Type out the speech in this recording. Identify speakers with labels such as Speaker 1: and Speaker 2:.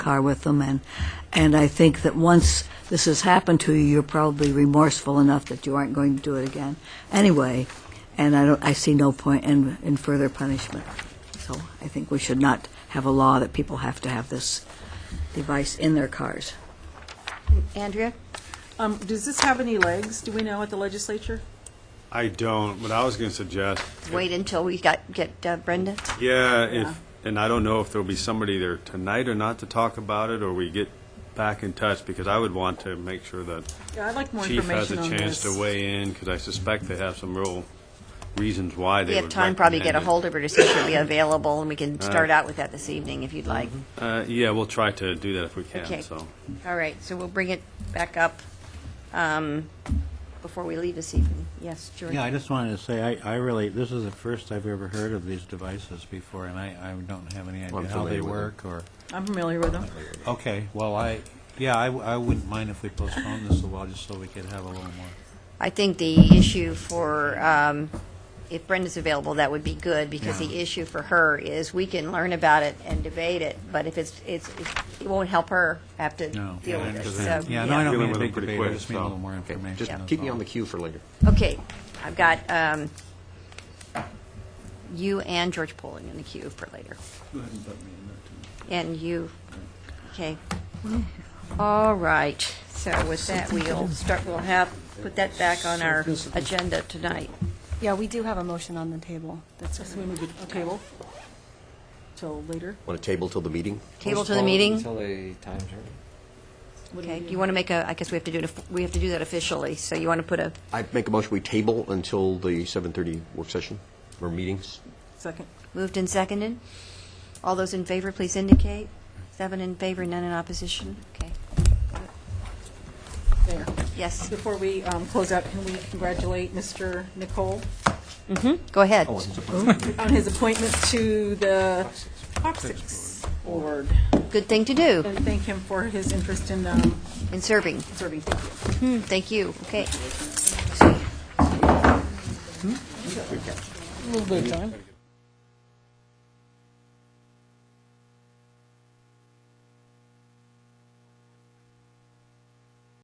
Speaker 1: car with them, and, and I think that once this has happened to you, you're probably remorseful enough that you aren't going to do it again anyway, and I don't, I see no point in, in further punishment. So I think we should not have a law that people have to have this device in their cars.
Speaker 2: Andrea?
Speaker 3: Um, does this have any legs? Do we know at the legislature?
Speaker 4: I don't, but I was going to suggest,
Speaker 2: Wait until we got, get uh, Brenda?
Speaker 4: yeah, if, and I don't know if there'll be somebody there tonight or not to talk about it, or we get back in touch, because I would want to make sure that
Speaker 3: Yeah, I'd like more
Speaker 4: chief has
Speaker 3: information
Speaker 4: a
Speaker 3: on
Speaker 4: chance
Speaker 3: this.
Speaker 4: to weigh in, because I suspect they have some real reasons why
Speaker 2: We
Speaker 4: they would
Speaker 2: have time, probably get a
Speaker 4: recommend it.
Speaker 2: hold of her to see if she'll be available, and we can start out with that this evening if you'd like.
Speaker 4: Uh, yeah, we'll try to do that if we
Speaker 2: Okay.
Speaker 4: can, so.
Speaker 2: All right, so we'll bring it back up um, before we leave this evening. Yes, George?
Speaker 5: Yeah, I just wanted to say, I, I really, this is the first I've ever heard of these devices before, and I, I don't have any idea how they
Speaker 6: familiar with them.
Speaker 5: work or,
Speaker 3: I'm familiar with them.
Speaker 5: okay, well, I, yeah, I, w- I wouldn't mind if we postponed this a while, just so we could have a little more.
Speaker 2: I think the issue for, um, if Brenda's available, that would be good, because the
Speaker 5: Yeah.
Speaker 2: issue for her is we can learn about it and debate it, but if it's, it's, it won't help her have to
Speaker 5: No.
Speaker 2: deal
Speaker 5: I
Speaker 2: with it,
Speaker 5: understand.
Speaker 2: so.
Speaker 5: Yeah, no, I don't
Speaker 4: Dealing
Speaker 5: mean a
Speaker 4: with them
Speaker 5: big
Speaker 4: pretty
Speaker 5: debate, I
Speaker 4: quick,
Speaker 5: just mean a
Speaker 4: so.
Speaker 5: little more
Speaker 6: Okay,
Speaker 5: information.
Speaker 6: just
Speaker 5: that's
Speaker 6: keep me
Speaker 5: all.
Speaker 6: on the queue for later.
Speaker 2: Okay, I've got um, you and George Poling in the queue for later. And you, okay. All right, so with that, we'll start, we'll have, put that back on our agenda tonight.
Speaker 7: Yeah, we do have a motion on the table. That's
Speaker 3: So we move it to table till later.
Speaker 6: Want to table till the meeting?
Speaker 2: Table to the meeting?
Speaker 8: Until the time's right.
Speaker 2: Okay, you want to make a, I guess we have to do it, of- we have to do that officially, so you want to put a,
Speaker 6: I make a motion, we table until the 7:30 work session or meetings.
Speaker 3: Second.
Speaker 2: moved and seconded? All those in favor, please indicate. Seven in favor, none in opposition? Okay,
Speaker 3: There.
Speaker 2: yes,
Speaker 3: Before we um, close out, can we congratulate Mr. Nicole
Speaker 2: go ahead.
Speaker 3: on his appointment to the Toxics Board?
Speaker 2: Good thing to do
Speaker 3: And thank him for his interest in um,
Speaker 2: in serving.
Speaker 3: serving. Thank you.
Speaker 2: Thank you. Okay.